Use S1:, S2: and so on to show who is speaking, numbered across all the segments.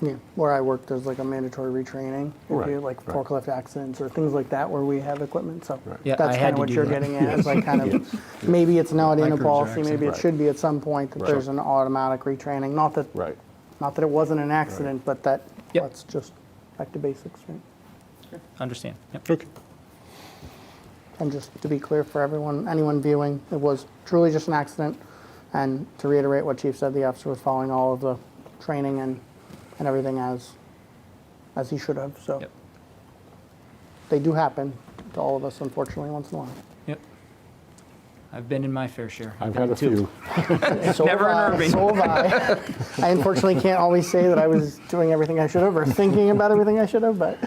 S1: Yeah, where I work, there's like a mandatory retraining. If
S2: Right,
S1: you like
S2: right.
S1: forklift accidents or things like that where we have equipment, so.
S2: Right.
S3: Yeah, I
S1: That's kind
S3: had to
S1: of what
S3: do
S1: you're
S3: that.
S1: getting at, is like kind
S2: Yes,
S1: of, maybe it's not in a
S3: Microinjection.
S1: policy, maybe it
S2: Right.
S1: should be at some point that
S2: Right.
S1: there's an automatic retraining. Not that,
S2: Right.
S1: not that it wasn't an accident, but that,
S3: Yep.
S1: let's just back to basics, right?
S3: Understand. Yep.
S2: Okay.
S1: And just to be clear for everyone, anyone viewing, it was truly just an accident. And to reiterate what Chief said, the officer was following all of the training and, and everything as, as he should have, so.
S3: Yep.
S1: They do happen to all of us unfortunately once in a while.
S3: Yep. I've been in my fair share.
S2: I've had a
S3: Two.
S2: few.
S1: So
S3: Never
S1: have
S3: an
S1: I,
S3: urban.
S1: So have I. I unfortunately can't always say that I was doing everything I should have or thinking about everything I should have, but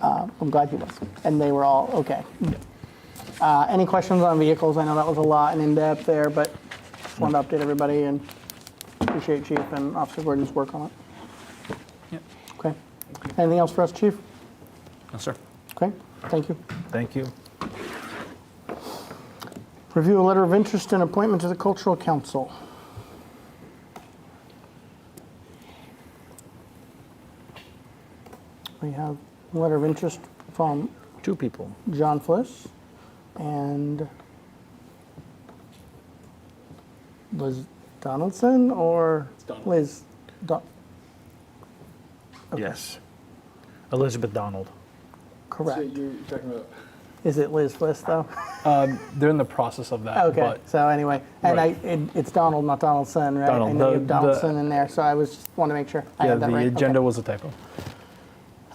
S1: uh, I'm glad you was. And they were all okay. Uh, any questions on vehicles? I know that was a lot and in depth there, but just wanted to update everybody and appreciate Chief and Officer Gordon's work on it.
S3: Yep.
S1: Okay. Anything else for us, Chief?
S3: No, sir.
S1: Okay. Thank you.
S4: Thank you.
S1: Review a letter of interest and appointment to the Cultural Council. We have a letter of interest from
S4: Two people.
S1: John Fliss and Liz Donaldson or Liz? Don-
S4: Yes. Elizabeth Donald.
S5: So
S1: Correct.
S5: you're talking about,
S1: Is it Liz Fliss though?
S4: They're in the process of that.
S1: Okay,
S4: But
S1: so anyway, and I,
S4: Right.
S1: it, it's Donald, not Donaldson, right? I
S4: Donald,
S1: know you
S4: the-
S1: have Donaldson in there, so I was, just want to make sure I
S4: yeah,
S1: had that
S4: the
S1: right.
S4: agenda
S1: Okay.
S4: was a typo.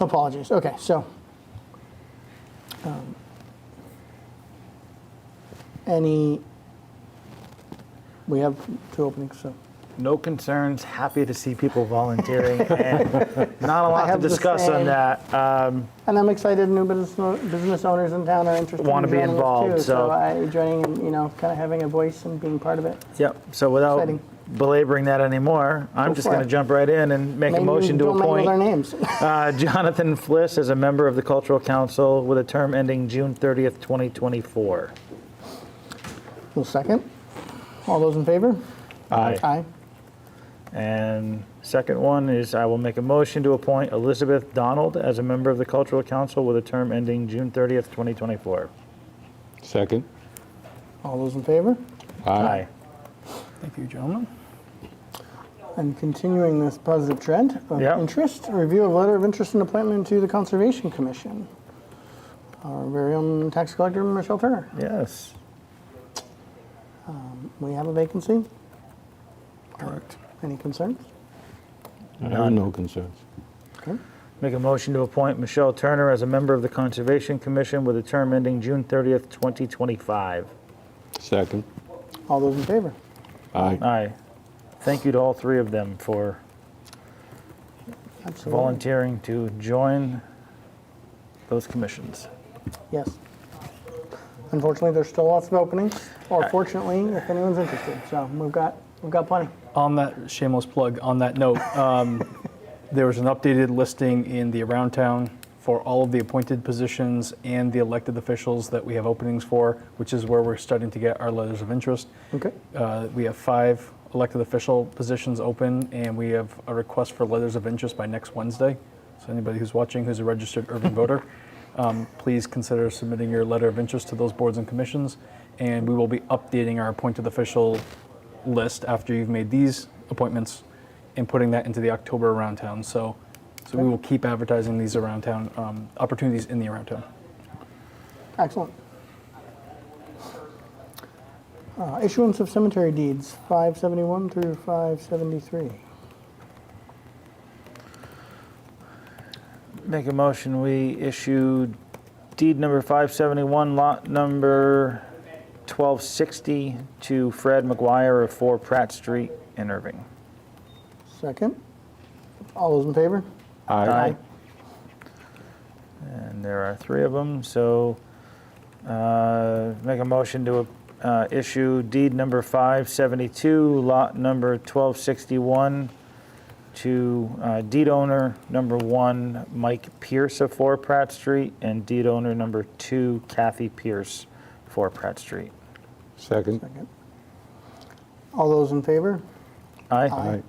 S1: Apologies, okay, so. um, Any, we have two openings, so.
S4: No concerns. Happy to see people volunteering. and not a
S1: I
S4: lot to
S1: have the
S4: discuss on
S1: same.
S4: that. Um,
S1: And I'm excited new business, business owners in town are interested in
S4: Wanna
S1: joining
S4: be
S1: us too,
S4: involved, so-
S1: I, joining, and, you know, kind of having a voice and being part of it.
S4: yep. So without
S1: Exciting.
S4: belaboring that anymore, I'm
S1: Go
S4: just
S1: for
S4: going
S1: it.
S4: to jump right in and make
S1: Maybe
S4: a motion to
S1: don't mangle
S4: appoint
S1: their names.
S4: uh, Jonathan Fliss as a member of the Cultural Council with a term ending June 30th, 2024.
S1: Well, second, all those in favor?
S4: Aye.
S1: Aye.
S4: And second one is I will make a motion to appoint Elizabeth Donald as a member of the Cultural Council with a term ending June 30th, 2024.
S2: Second.
S1: All those in favor?
S4: Aye.
S3: Thank you, gentlemen.
S1: And continuing this positive trend of
S4: Yeah.
S1: interest, a review of letter of interest and appointment to the Conservation Commission. Our very own tax collector, Michelle Turner.
S4: Yes.
S1: We have a vacancy.
S2: Correct.
S1: Any concerns?
S2: I have no concerns.
S1: Okay.
S4: Make a motion to appoint Michelle Turner as a member of the Conservation Commission with a term ending June 30th, 2025.
S2: Second.
S1: All those in favor?
S2: Aye.
S4: Aye. Thank you to all three of them for
S1: Absolutely.
S4: volunteering to join those commissions.
S1: Yes. Unfortunately, there's still lots of openings, or fortunately, if anyone's interested. So we've got, we've got plenty.
S6: On that shameless plug, on that note, um, there was an updated listing in the Around Town for all of the appointed positions and the elected officials that we have openings for, which is where we're starting to get our letters of interest.
S1: Okay.
S6: Uh, We have five elected official positions open, and we have a request for letters of interest by next Wednesday. So anybody who's watching who's a registered urban voter, um, please consider submitting your letter of interest to those boards and commissions, and we will be updating our appointed official list after you've made these appointments and putting that into the October around town. So, so we will keep advertising these around town, um, opportunities in the around town.
S1: Excellent. Uh, Issuance of cemetery deeds, 571 through 573.
S4: Make a motion, we issue deed number 571, lot number 1260 to Fred McGuire of 4 Pratt Street in Irving.
S1: Second. All those in favor?
S2: Aye.
S4: And there are three of them, so uh, make a motion to uh, issue deed number 572, lot number 1261 to uh, deed owner number one, Mike Pierce of 4 Pratt Street, and deed owner number two, Kathy Pierce, 4 Pratt Street.
S2: Second.
S1: All those in favor?
S4: Aye.
S2: Aye.